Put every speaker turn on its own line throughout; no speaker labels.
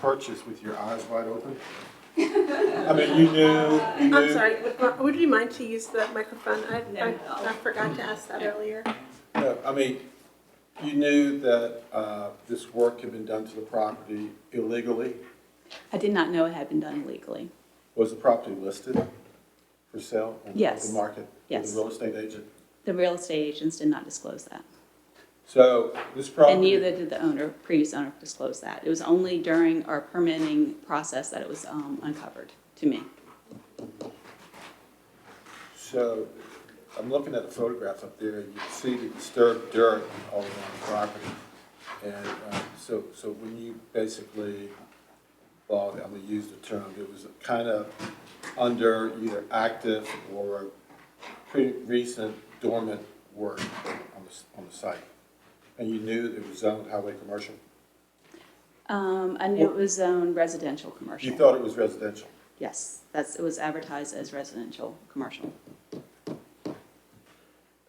purchase with your eyes wide open? I mean, you knew, you knew.
I'm sorry, would- uh, would you mind to use the microphone? I,
No,
I,
no.
I forgot to ask that earlier.
No, I mean, you knew that uh, this work had been done to the property illegally.
I did not know it had been done illegally.
Was the property listed for sale? on the
Yes.
open market? With
Yes.
a real estate agent?
The real estate agents did not disclose that.
So this property.
And neither did the owner, previous owner disclose that. It was only during our permitting process that it was um, uncovered to me.
So I'm looking at the photographs up there, you can see the disturbed dirt all around the property. And uh, so, so when you basically, well, I'm gonna use the term, it was kind of under either active or pretty recent dormant work on the, s- on the site. And you knew it was zoned highway commercial?
Um, I knew it was zoned residential commercial.
You thought it was residential?
Yes, that's, it was advertised as residential commercial.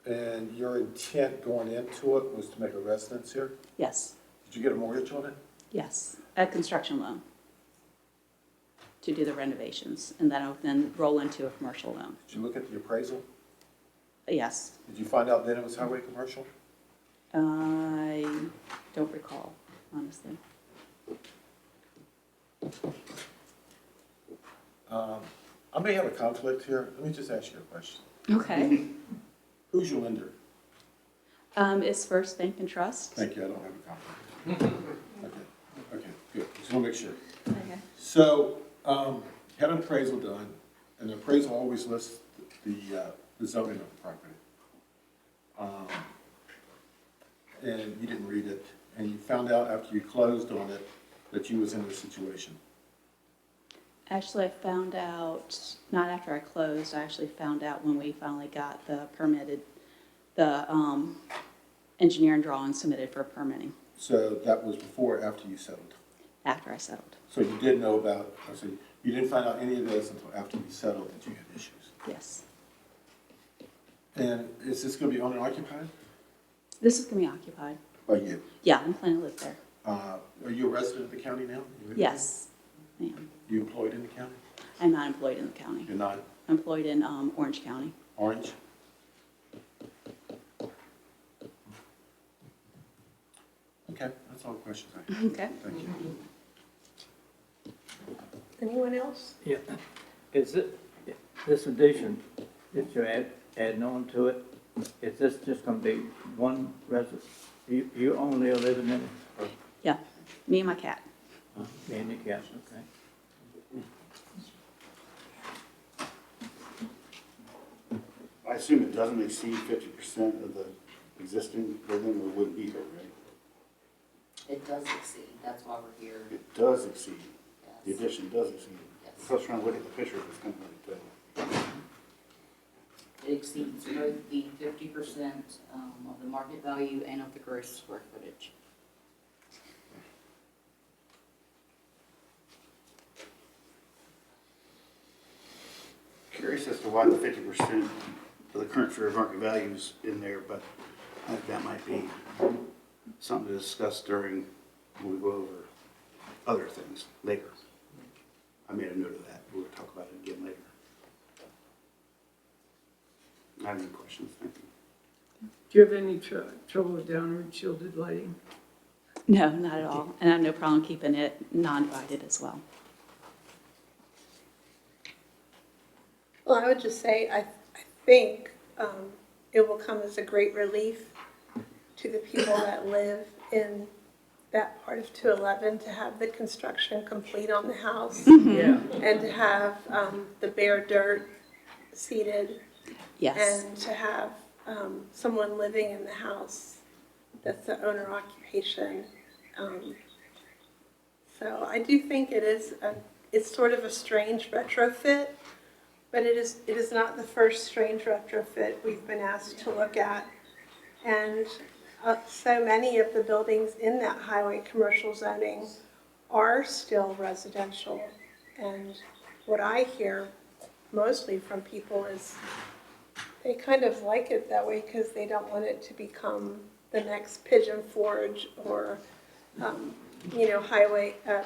And your intent going into it was to make a residence here?
Yes,
Did you get a mortgage on it?
yes, a construction loan to do the renovations, and then I would then roll into a commercial loan.
Did you look at the appraisal?
Yes,
Did you find out then it was highway commercial?
I don't recall, honestly.
I may have a conflict here. Let me just ask you a question.
Okay.
Who's your lender?
Um, it's First Bank and Trust.
Thank you, I don't have a conflict. Okay, okay, good. Just want to make sure.
Okay.
So, um, had an appraisal done, and the appraisal always lists the, uh, the zoning of the property. Um, And you didn't read it, and you found out after you closed on it that you was in this situation.
Actually, I found out, not after I closed, I actually found out when we finally got the permitted, the, um, engineering drawing submitted for permitting,
So that was before or after you settled?
after I settled,
So you did know about, I see, you didn't find out any of this until after we settled that you had issues.
yes.
And is this gonna be owner occupied
This is gonna be occupied.
by you?
Yeah, I'm planning to live there.
Uh, Are you a resident of the county now? You live there?
Yes, I am.
You employed in the county?
I'm not employed in the county.
You're not
I'm employed in, um, Orange County.
orange? Okay, that's all the questions I have.
Okay.
Thank you.
Anyone else?
Yeah, is it, this addition, that you add, adding on to it, is this just gonna be one residence? You, you only are living in it,
Yeah, me and my cat.
or being the castle, okay?
I assume it doesn't exceed fifty percent of the existing building, or it wouldn't be there, right?
It does exceed, that's why we're here,
It does exceed, the
yes.
addition does exceed.
Yes.
So I was trying to look at the picture, but it's kind of uh, hard to tell.
It exceeds both the fifty percent um, of the market value and of the gross square footage.
Curious as to why the fifty percent of the current fair market value is in there, but I think that might be something to discuss during, when we go over other things later. I made a note of that, we'll talk about it again later. I have any questions, thank you.
Do you have any tr- trouble with downward shielded lighting?
No, not at all. And I have no problem keeping it non-divided as well.
Well, I would just say, I, I think, um, it will come as a great relief to the people that live in that part of two eleven to have the construction complete on the house
Yeah.
and to have, um, the bare dirt seeded
Yes,
and to have um, someone living in the house that's the owner occupation. Um, so I do think it is a, it's sort of a strange retrofit, but it is it is not the first strange retrofit we've been asked to look at, and uh, so many of the buildings in that highway commercial zoning are still residential, and what I hear mostly from people is they kind of like it that way because they don't want it to become the next Pigeon Forge or, um, you know, highway, uh,